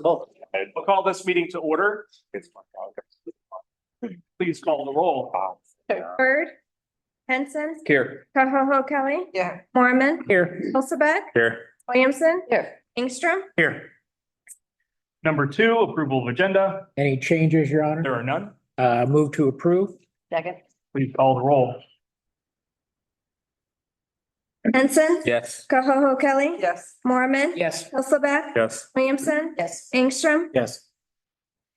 Well, We'll call this meeting to order. Please call the roll. Bird. Henson. Here. Koho Kelly. Yeah. Mormon. Here. Hulseth. Here. Williamson. Here. Ingstrom. Here. Number two, approval of agenda. Any changes, Your Honor? There are none. Uh, move to approve? Second. Please call the roll. Henson. Yes. Koho Kelly. Yes. Mormon. Yes. Hulseth. Yes. Williamson. Yes. Ingstrom. Yes.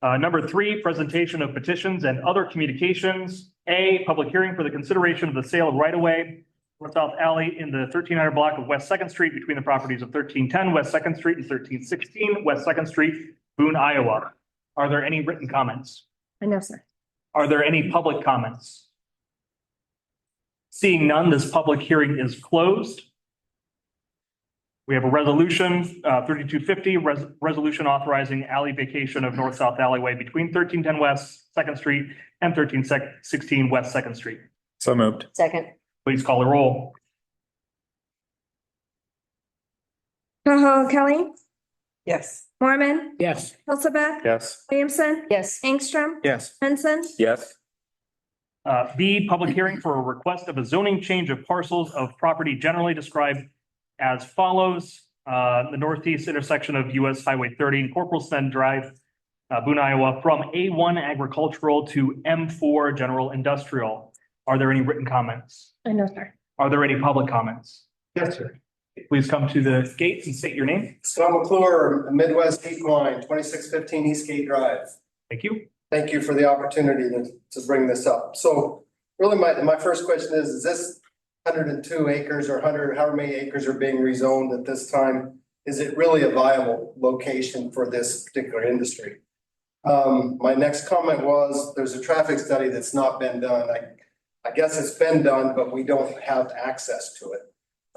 Uh, number three, presentation of petitions and other communications. A, public hearing for the consideration of the sale of right-of-way north south alley in the thirteen hundred block of West Second Street between the properties of thirteen ten West Second Street and thirteen sixteen West Second Street, Boone, Iowa. Are there any written comments? I know, sir. Are there any public comments? Seeing none, this public hearing is closed. We have a resolution, uh, thirty-two fifty, resolution authorizing alley vacation of north-south alleyway between thirteen ten West Second Street and thirteen sixteen West Second Street. So moved. Second. Please call the roll. Koho Kelly. Yes. Mormon. Yes. Hulseth. Yes. Williamson. Yes. Ingstrom. Yes. Henson. Yes. Uh, B, public hearing for a request of a zoning change of parcels of property generally described as follows. Uh, the northeast intersection of US Highway thirty and Corporal Send Drive, uh, Boone, Iowa, from A one agricultural to M four general industrial. Are there any written comments? I know, sir. Are there any public comments? Yes, sir. Please come to the gate and state your name. Scott McClure, Midwest Equine, twenty-six fifteen Eastgate Drive. Thank you. Thank you for the opportunity to, to bring this up. So really my, my first question is, is this hundred and two acres or hundred, however many acres are being rezoned at this time? Is it really a viable location for this particular industry? Um, my next comment was, there's a traffic study that's not been done. I, I guess it's been done, but we don't have access to it.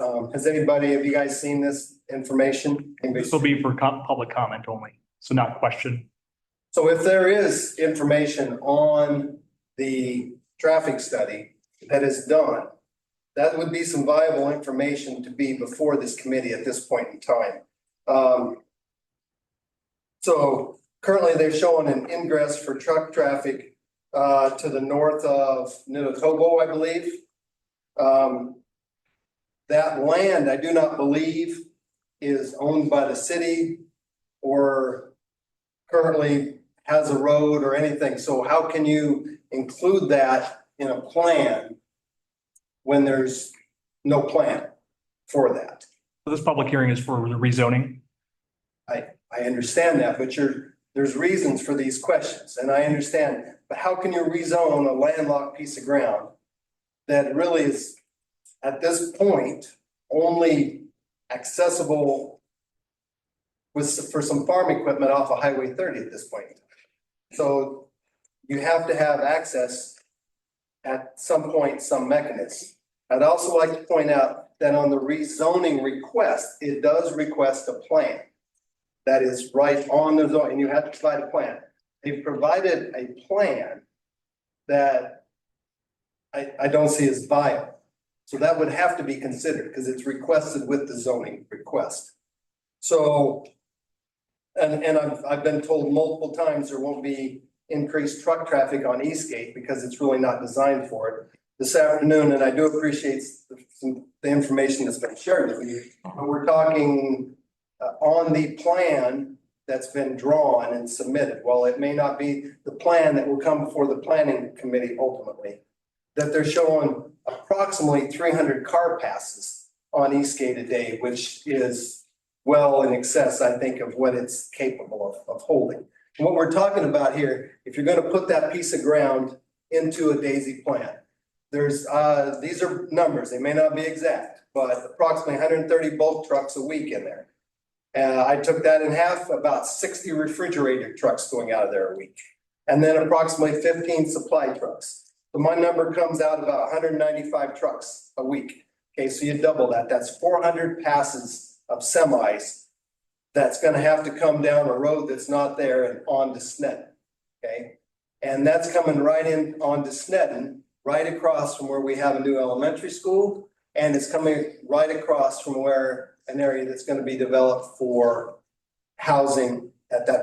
Um, has anybody, have you guys seen this information? Anybody This will be for com- public comment only, so not question. so if there is information on the traffic study that is done, that would be some viable information to be before this committee at this point in time. Um, So currently they're showing an ingress for truck traffic uh, to the north of Nitotobo, I believe. Um, That land, I do not believe, is owned by the city or currently has a road or anything, so how can you include that in a plan when there's no plan for that? So This public hearing is for the rezoning. I understand that, but you're, there's reasons for these questions, and I understand, but how can you rezone a landlocked piece of ground that really is, at this point, only accessible with, for some farm equipment off of Highway thirty at this point? So you have to have access at some point, some mechanism. I'd also like to point out that on the rezoning request, it does request a plan that is right on the zone, and you have to provide a plan. They've provided a plan that I, I don't see as viable. So that would have to be considered because it's requested with the zoning request. So, and, and I've, I've been told multiple times there won't be increased truck traffic on Eastgate because it's really not designed for it. This afternoon, and I do appreciate the- some- the information that's been shared with you, but we're talking uh, on the plan that's been drawn and submitted, while it may not be the plan that will come before the planning committee ultimately, that they're showing approximately three hundred car passes on Eastgate a day, which is well in excess, I think, of what it's capable of, of holding. And What we're talking about here, if you're gonna put that piece of ground into a daisy plan, there's, uh, these are numbers, they may not be exact, but approximately hundred and thirty bulk trucks a week in there. Uh, I took that in half, about sixty refrigerator trucks going out of there a week. And then approximately fifteen supply trucks. So my number comes out about hundred and ninety-five trucks a week. Okay, so you double that, that's four hundred passes of semis. That's gonna have to come down a road that's not there and on to Snedden. Okay? And that's coming right in onto Snedden, right across from where we have a new elementary school. And it's coming right across from where an area that's gonna be developed for housing at that